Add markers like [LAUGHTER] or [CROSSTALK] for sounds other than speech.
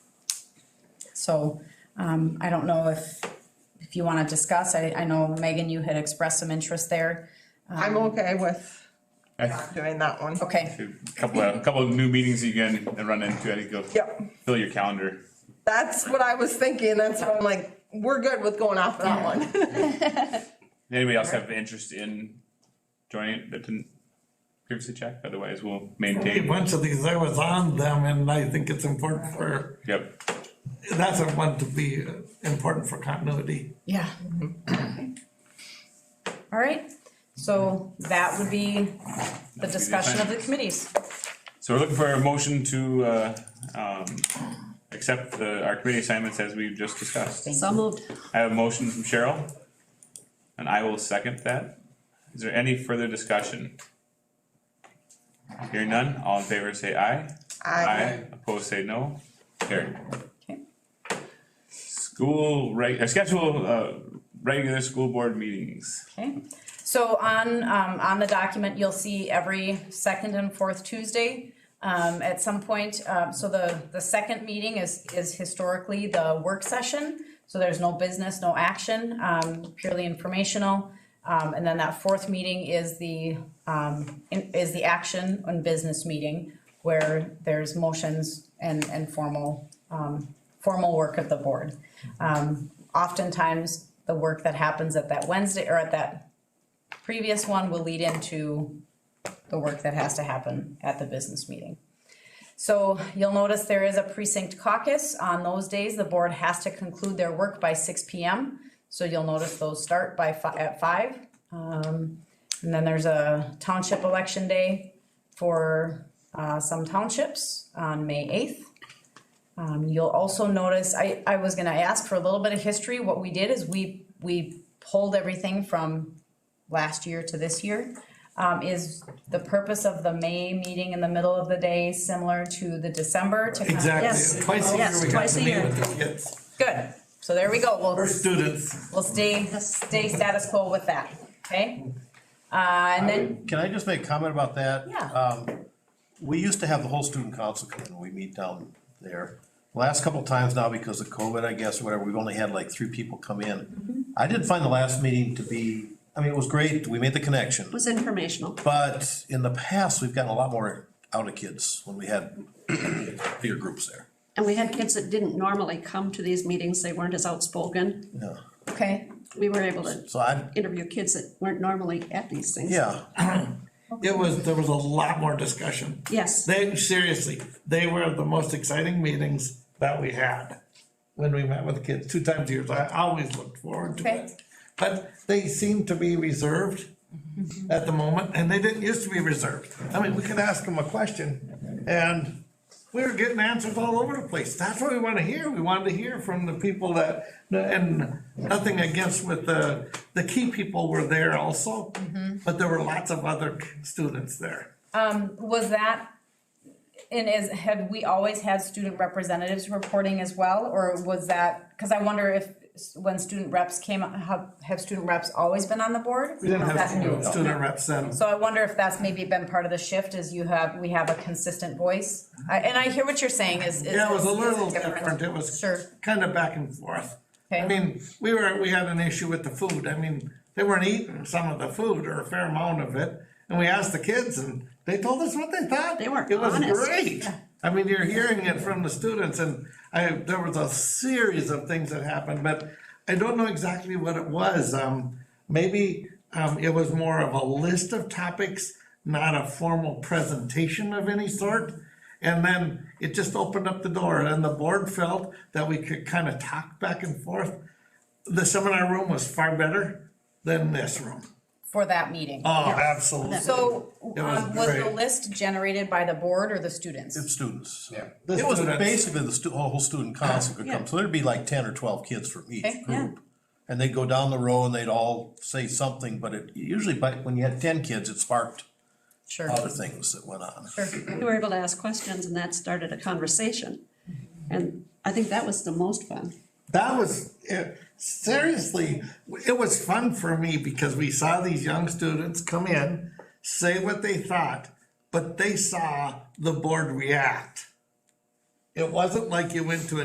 So um, I don't know if, if you want to discuss, I, I know Megan, you had expressed some interest there. I'm okay with I not doing that one. Okay, think a couple of, a couple of new meetings you can run into, I think you'll Yep. fill your calendar. That's what I was thinking, that's why I'm like, we're good with going off that one. Does Anybody else have interest in joining it that didn't previously check? Otherwise, we'll A maintain. bunch of these, I was on them and I think it's important for, Yep, that's a one to be uh, important for continuity. yeah. Mm-hmm. All right, so that would be the discussion of the committees. so we're looking for a motion to, uh, um, accept the, our committee assignments as we've just discussed. So moved. I have a motion from Cheryl, and I will second that. Is there any further discussion? Hearing none, all in favor say aye. I, Opposed say no. Carried. Okay. School reg, uh, schedule, uh, regular school board meetings. Okay, so on, um, on the document, you'll see every second and fourth Tuesday. Um, at some point, um, so the, the second meeting is, is historically the work session. So there's no business, no action, um, purely informational. Um, and then that fourth meeting is the, um, in- is the action and business meeting where there's motions and, and formal, um, formal work of the board. Um, oftentimes, the work that happens at that Wednesday or at that previous one will lead into the work that has to happen at the business meeting. So you'll notice there is a precinct caucus. On those days, the board has to conclude their work by six P M. So you'll notice those start by fi- at five. Um, and then there's a township election day for, uh, some townships on May eighth. Um, you'll also notice, I, I was gonna ask for a little bit of history, what we did is we, we pulled everything from last year to this year. Um, is the purpose of the May meeting in the middle of the day similar to the December to? kind of- Exactly, Yes. twice a year Yes, we got twice to a meet year. with the kids, Good, so there we go, for we'll, students. we'll stay, stay status quo with that, okay? Uh, and then, Can I just make a comment about that? Yeah. Um, we used to have the whole student council come in, we meet down there. Last couple times now, because of COVID, I guess, or whatever, we've only had like three people come in. I did find the last meeting to be, I mean, it was great, we made the connection, was informational. but in the past, we've gotten a lot more out of kids when we had [CLEARS THROAT] bigger groups there. And we had kids that didn't normally come to these meetings, they weren't as outspoken. Yeah, okay, We were able to so I, interview kids that weren't normally at these things. yeah, It was, there was a lot more discussion. Yes, They, seriously, they were the most exciting meetings that we had when we met with kids, two times a year, I always looked forward to Okay. it. But they seemed to be reserved at the moment, and they didn't used to be reserved. I mean, we could ask them a question, and we were getting answers all over the place. That's what we wanna hear, we wanted to hear from the people that, and nothing against with the, the key people were there also, but there were lots of other students there. Um, was that, and is, had we always had student representatives reporting as well, or was that, cause I wonder if s- when student reps came, have, have student reps always been on the board? We didn't Is have that new? student- student reps then. So I wonder if that's maybe been part of the shift is you have, we have a consistent voice. I, and I hear what you're saying is, is. Yeah, it was a is little different, it was Sure. kind of back and forth. I Okay. mean, we were, we had an issue with the food, I mean, they weren't eating some of the food or a fair amount of it. And we asked the kids and they told us what they thought. They were It was honest. great. I mean, you're hearing it from the students and I, there was a series of things that happened, but I don't know exactly what it was. Um, maybe, um, it was more of a list of topics, not a formal presentation of any sort. And then it just opened up the door and the board felt that we could kind of talk back and forth. The seminar room was far better than this room. For that meeting. Oh, absolutely. So, It was um, was the great. list generated by the board or the students? students. Yeah. The It was students. basically the stu- whole student council could come, so there'd be like ten or twelve kids from Okay, each yeah. group. And they'd go down the row and they'd all say something, but it usually, but when you had ten kids, it sparked Sure. other things that went on. we were able to ask questions and that started a conversation. And I think that was the most fun. That was, it, seriously, it was fun for me because we saw these young students come in, say what they thought, but they saw the board react. It wasn't like you went to a